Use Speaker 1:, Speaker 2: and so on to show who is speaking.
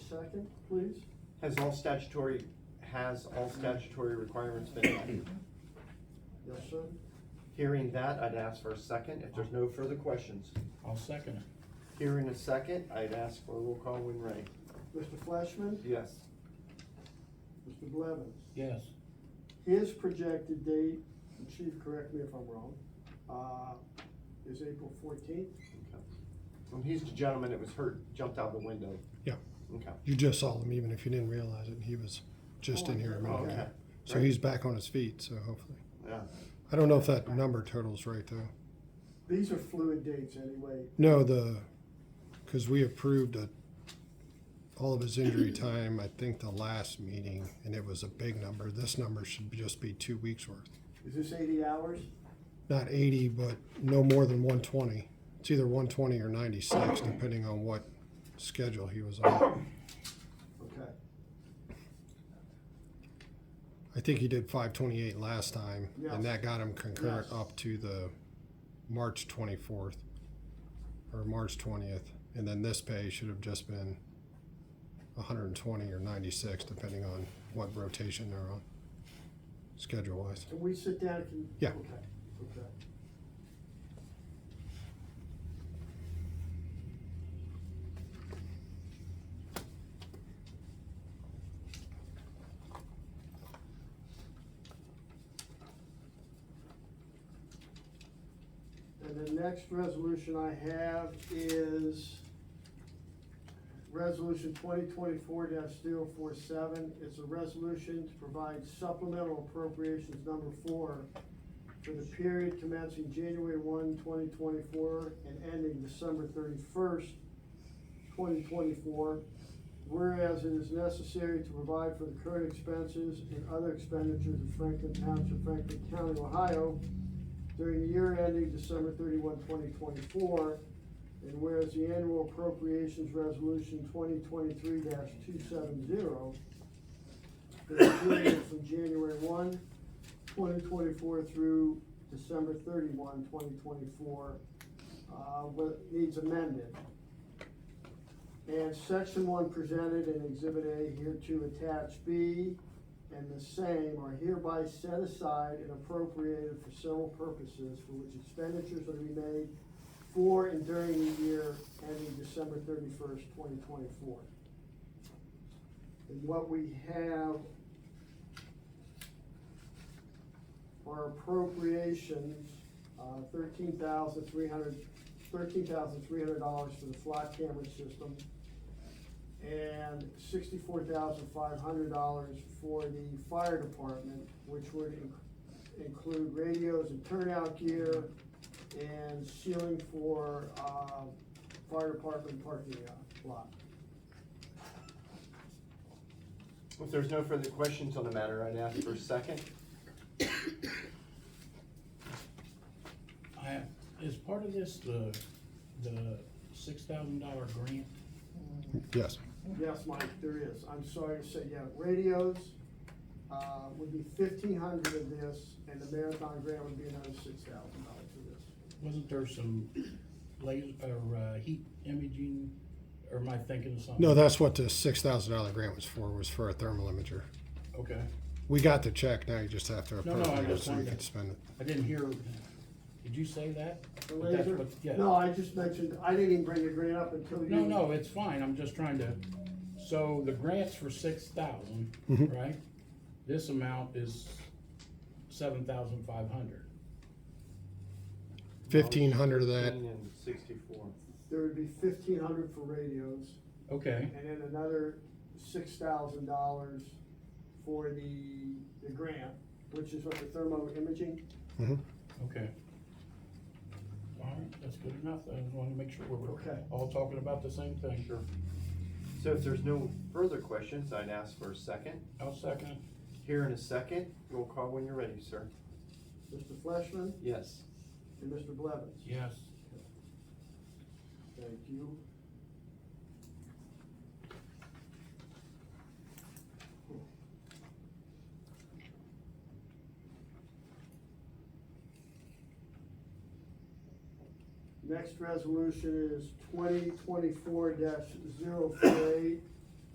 Speaker 1: second, please?
Speaker 2: Has all statutory, has all statutory requirements been met?
Speaker 1: Yes, sir.
Speaker 2: Hearing that, I'd ask for a second, if there's no further questions.
Speaker 3: I'll second it.
Speaker 2: Hearing a second, I'd ask for a roll call when ready.
Speaker 1: Mr. Flashman?
Speaker 2: Yes.
Speaker 1: Mr. Blevins?
Speaker 3: Yes.
Speaker 1: His projected date, and Chief, correct me if I'm wrong, uh, is April fourteenth?
Speaker 2: Okay. Well, he's the gentleman that was hurt, jumped out the window.
Speaker 4: Yeah.
Speaker 2: Okay.
Speaker 4: You just saw him, even if you didn't realize it. He was just in here a minute
Speaker 2: Oh, Okay.
Speaker 4: ago. So he's back on his feet, so hopefully.
Speaker 2: Yeah.
Speaker 4: I don't know if that number total's right, though.
Speaker 1: These are fluid dates anyway.
Speaker 4: No, the, because we approved a, all of his injury time, I think the last meeting, and it was a big number. This number should be- just be two weeks worth.
Speaker 1: Is this eighty hours?
Speaker 4: Not eighty, but no more than one twenty. It's either one twenty or ninety-six, depending on what schedule he was on.
Speaker 1: Okay.
Speaker 4: I think he did five twenty-eight last time,
Speaker 1: Yes.
Speaker 4: and that got him concurrent
Speaker 1: Yes.
Speaker 4: up to the March twenty-fourth or March twentieth, and then this pay should have just been hundred and twenty or ninety-six, depending on what rotation they're on, schedule-wise.
Speaker 1: Can we sit down? Can-
Speaker 4: Yeah.
Speaker 1: Okay, okay. And the next resolution I have is Resolution twenty twenty-four 47 It's a resolution to provide supplemental appropriations number four for the period commencing January 1, 2024, and ending December thirty-first, twenty twenty-four. Whereas it is necessary to provide for the current expenses and other expenditures of Franklin Township, Franklin County, Ohio during the year ending December 31, 2024. And whereas the annual appropriations resolution twenty twenty-three two seven zero for the period from January 1, 2024, through December 31, 2024, uh, what needs amended. And section one presented in exhibit A here to attach B and the same are hereby set aside and appropriated for several purposes for which expenditures are to be made for and during the year ending December thirty-first, twenty twenty-four. And what we have are appropriations, uh, thirteen thousand three hundred, thirteen thousand three hundred dollars for the flock camera system and sixty-four thousand five hundred dollars for the fire department, which would in- include radios and turnout gear and ceiling for, uh, fire department parking lot.
Speaker 2: If there's no further questions on the matter, I'd ask for a second.
Speaker 3: I, is part of this the, the six thousand dollar grant?
Speaker 4: Yes.
Speaker 1: Yes, Mike, there is. I'm sorry to say, yeah, radios, uh, would be fifteen hundred of this, and the marathon grant would be another six thousand dollars for this.
Speaker 3: Wasn't there some laser, or, uh, heat imaging, or am I thinking of something?
Speaker 4: No, that's what the six thousand dollar grant was for, was for a thermal imager.
Speaker 3: Okay,
Speaker 4: We got the check, now you just have to
Speaker 3: No, no,
Speaker 4: approve
Speaker 3: I
Speaker 4: it
Speaker 3: just
Speaker 4: so you
Speaker 3: wanted
Speaker 4: can
Speaker 3: to-
Speaker 4: spend it.
Speaker 3: I didn't hear, did you say that?
Speaker 1: The
Speaker 3: But that's
Speaker 1: laser-
Speaker 3: what- Yeah.
Speaker 1: No, I just mentioned, I didn't even bring the grant up until you.
Speaker 3: No, no, it's fine, I'm just trying to, so the grant's for six thousand,
Speaker 4: Mhm.
Speaker 3: right? This amount is seven thousand five hundred.
Speaker 4: Fifteen hundred of that,
Speaker 2: 15 and sixty-four.
Speaker 1: There would be fifteen hundred for radios,
Speaker 3: Okay,
Speaker 1: and then another six thousand dollars for the, the grant, which is what the thermo imaging.
Speaker 3: okay. All right, that's good enough, I just wanted to make sure we're
Speaker 1: Okay.
Speaker 3: all talking about the same thing. Sure.
Speaker 2: So if there's no further questions, I'd ask for a second.
Speaker 3: I'll second it.
Speaker 2: Here in a second, roll call when you're ready, sir.
Speaker 1: Mr. Fleshman
Speaker 2: Yes.
Speaker 1: and Mr. Blevins.
Speaker 3: Yes.
Speaker 1: Thank you. Next resolution is twenty twenty-four 48